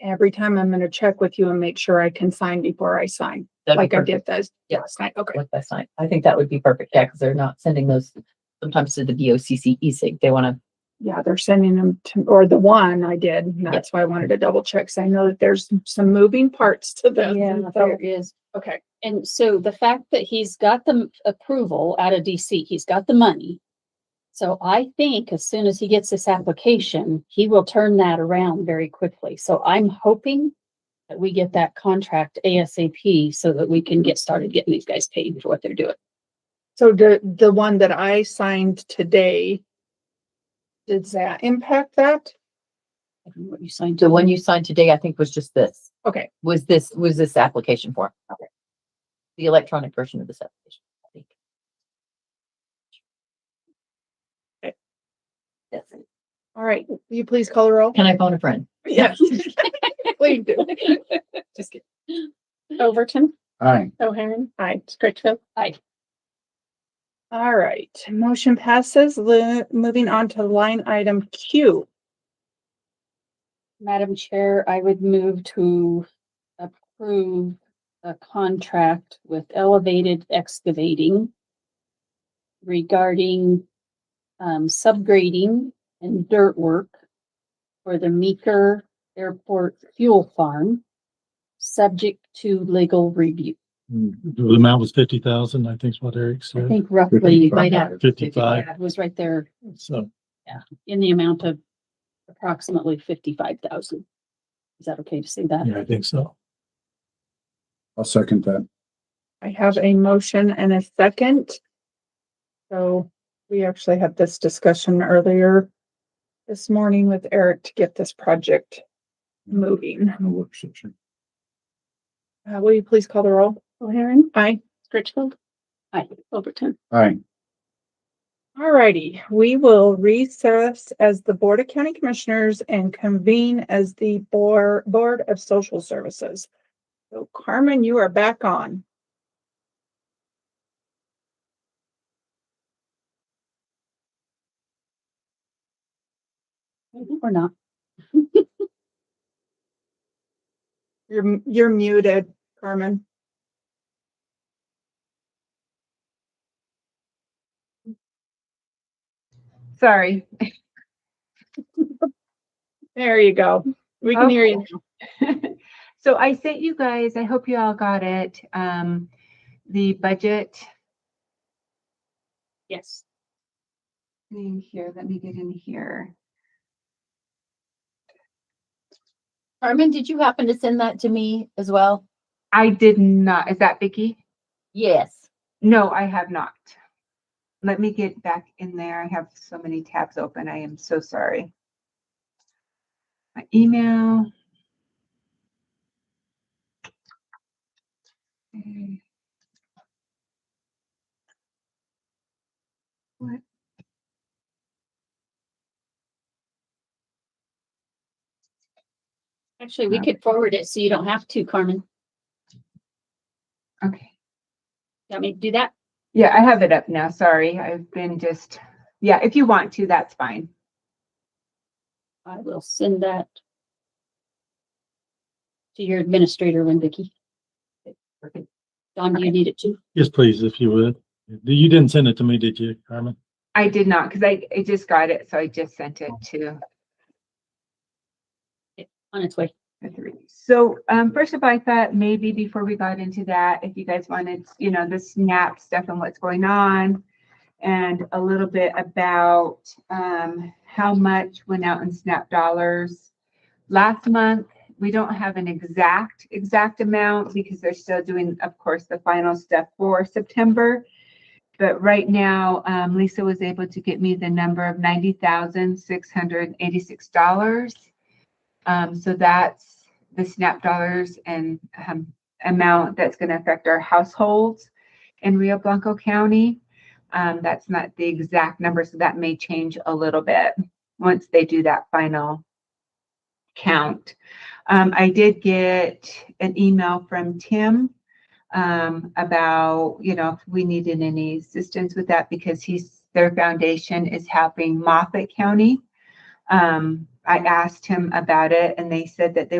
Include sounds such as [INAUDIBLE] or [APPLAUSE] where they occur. every time I'm gonna check with you and make sure I can sign before I sign, That'd be like I perfect. did this Yeah. last night. Okay. Like last night. I think that would be perfect. Yeah, because they're not sending those sometimes to the VOCC e-sig. They want to, Yeah, they're sending them to, or the one I did. and Yeah. That's why I wanted to double check. 'cause I know that there's some moving parts to this. Yeah, and [LAUGHS] so- there is. Okay, And so the fact that he's got the m- approval out of DC, he's got the money. So I think as soon as he gets this application, he will turn that around very quickly. So I'm hoping that we get that contract ASAP so that we can get started getting these guys paid for what they're doing. so the, the one that I signed today, does that impact that? I don't know what you signed. the one you signed today, I think was just this, Okay, was this, was this application form. The electronic version of this application. I think. Okay. That's it. all right. Will you please call the roll? Can I phone a friend? [LAUGHS] Yes. Please do. [LAUGHS] Just kidding. Overton, Aye. O'Hairan, Aye. Scritchfield. All right, motion passes. Li- Moving on to line item Q. Madam Chair, I would move to approve a contract with Elevated Excavating regarding um, subgrading and dirt work for the Meeker Airport Fuel Farm, subject to legal review. Mm-hmm. The amount was fifty thousand, I think is what Eric I said, think roughly Right now. fifty-five, yeah, it was right there so. in the amount of approximately fifty-five thousand. Is that okay to say that? Yeah, I think so. I'll second that. I have a motion and a second. So we actually had this discussion earlier this morning with Eric to get this project moving. In a work session. Uh, Will you please call the roll? O'Hairan, Aye. Scritchfield. Aye. Overton. Aye. All righty, we will recess as the Board of County Commissioners and convene as the Board, Board of Social Services. So Carmen, you are back on. Or not? You're, you're muted, Carmen. Sorry. [LAUGHS] There you go. We can hear you. [LAUGHS] So I sent you guys, I hope you all got it, um, the budget. Yes. In here, let me get in here. Carmen, did you happen to send that to me as well? I did not, is that Vicky? Yes. No, I have not. Let me get back in there. I have so many tabs open. I am so sorry. My email. Mm. What? Actually, we could forward it so you don't have to, Carmen. Okay. Let me to do that. Yeah, I have it up now. Sorry. I've been just, yeah, if you want to, that's fine. I will send that to your administrator, Lynn Vicky. Don, do you need it too? Yes, please, if you would. You didn't send it to me, did you, Carmen? I did not, because I, I just got it, so I just sent it to. On its way. the three. So, um, first of all, I thought maybe before we got into that, if you guys wanted, you know, the SNAP stuff and what's going on. And a little bit about, um, how much went out in SNAP dollars. Last month, we don't have an exact, exact amount because they're still doing, of course, the final stuff for September. But right now, um, Lisa was able to get me the number of ninety thousand, six hundred eighty-six dollars. Um, so that's the SNAP dollars and um, amount that's going to affect our households in Rio Blanco County. Um, that's not the exact number, so that may change a little bit once they do that final count. Um, I did get an email from Tim um, about, you know, if we needed any assistance with that because he's, their foundation is helping Moffat County. Um, I asked him about it and they said that they